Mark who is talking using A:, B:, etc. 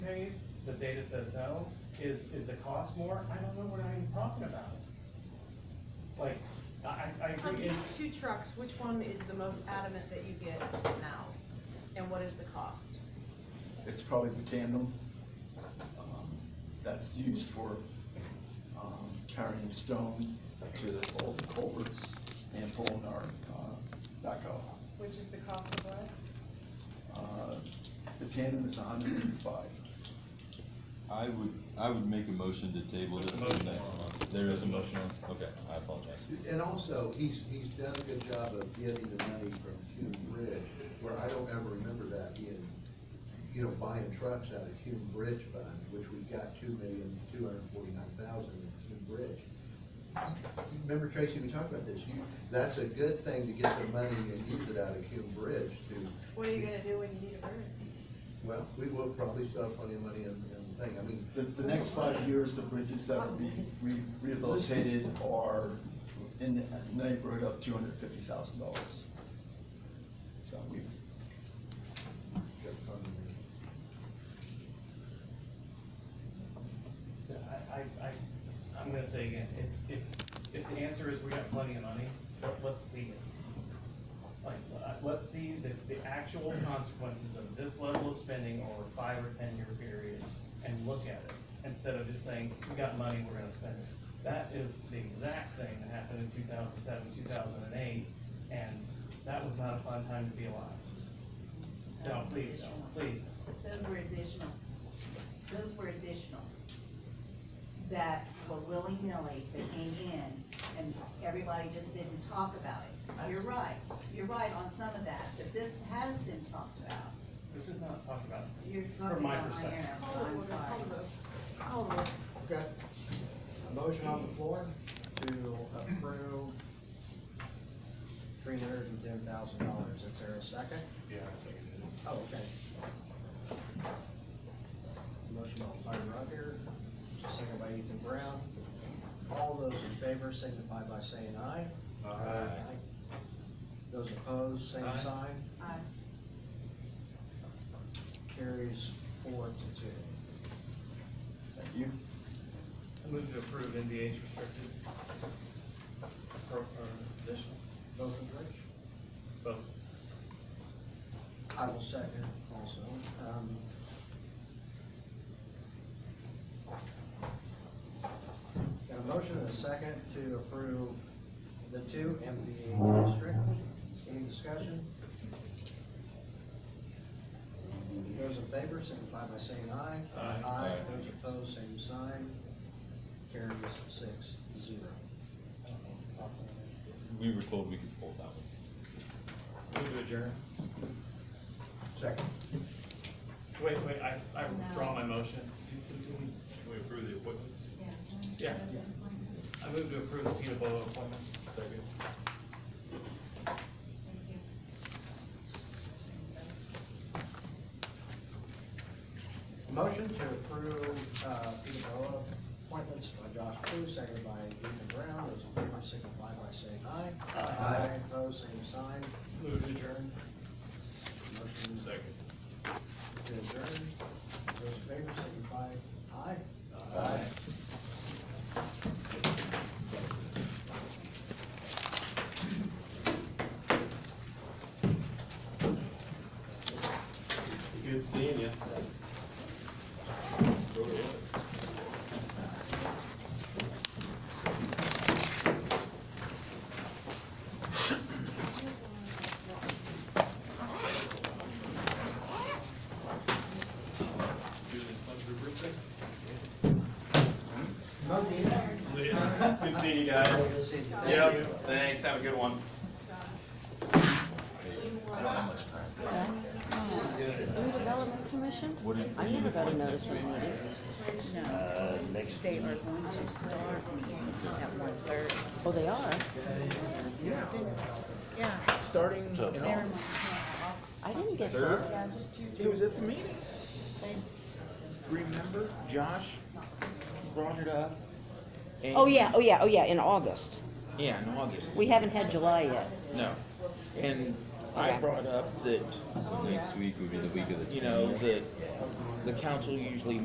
A: paid, the data says no, is, is the cost more? I don't know what I'm talking about. Like, I, I- I
B: On
A: agree,
B: these
A: it's,
B: two trucks, which one is the most adamant that you get now? And what is the cost?
C: It's probably the tandem. um, That's used for um, carrying stone to the old culverts and pulling our uh, backhoe.
B: Which is the cost of what?
C: Uh, The tandem is hundred and five.
D: I would, I would make a motion to table this
A: There's a motion.
D: to next month. There is a motion on, okay, I apologize.
E: And also, he's, he's done a good job of getting the money from Hume Bridge, where I don't ever remember that being, you know, buying trucks out of Hume Bridge Fund, which we got two million, two hundred and forty-nine thousand in Hume Bridge. Remember Tracy, we talked about this, you, that's a good thing to get the money and use it out of Hume Bridge to,
B: What are you gonna do when you need a bird?
E: well, we will probably still have plenty of money in, in the thing, I mean,
C: The, the next five years, the bridges that will be re- rehabilitated are in the neighborhood of two hundred fifty thousand dollars. So we've
E: got funding there.
A: I, I, I, I'm gonna say again, if, if, if the answer is we got plenty of money, let, let's see it. Like, uh, let's see the, the actual consequences of this level of spending over a five or ten-year period and look at it, instead of just saying, we got money, we're gonna spend it. That is the exact thing that happened in two thousand seven, two thousand and eight, and that was not a fun time to be alive. No, please, don't, please, don't.
F: Those were additionals. Those were additionals that were willy-nilly, that came in, and everybody just didn't talk about it. You're right, you're right on some of that, but this has been talked about.
A: this is not talked about.
F: You're
A: From
F: talking
A: my
F: about my arrow,
A: perspective.
F: so I'm sorry.
G: Okay. A motion on the floor to approve three hundred and ten thousand dollars. Is there a second?
H: Yeah, I seconded it.
G: Oh, okay. Motion by Roger, second by Ethan Brown. All those in favor signify by saying aye. Aye. Those opposed, same
A: Aye.
G: sign.
F: Aye.
G: Carries four to two.
C: Thank you.
A: I move to approve NVH restricted. Pro, or additional,
G: Motion, Rich?
A: vote.
G: I will second also. Um, Got a motion and a second to approve the two MVH district. Any discussion? Those in favor signify by saying aye.
A: Aye.
G: Aye,
D: Aye.
G: those opposed, same sign. Carries six zero.
A: I don't know, possible.
D: We were told we could pull that one.
A: Move to adjourn.
E: Second.
A: Wait, wait, I, I withdraw my motion.
H: Can we approve the appointments?
A: Yeah. I move to approve the Tina Bola appointment.
H: Second.
G: Motion to approve, uh, Peter Boa appointments by Josh Crew, seconded by Ethan Brown, those in favor signify by saying aye.
A: Aye.
G: opposed, same sign,
A: Move to adjourn.
G: motion
H: Second.
G: to adjourn, those in favor signify aye.
H: Good seeing you. Good seeing you guys. Yep, thanks, have a good one.
I: New Development Commission?
D: What did-
I: I never got a notice of meeting.
F: No, they are going to start meeting at one thirty.
I: Oh, they are?
F: Yeah.
C: Starting in
F: Never
C: August.
F: mind.
I: I didn't get
D: Sure.
I: that.
F: Yeah, just two.
C: It was at the meeting. Remember, Josh brought it up. and-
I: Oh, yeah, oh, yeah, oh, yeah, in August.
C: Yeah, in August.
I: We haven't had July yet.
C: No. And I brought up that,
D: So next week would be the week of the
C: you know,
D: twentieth.
C: that the council usually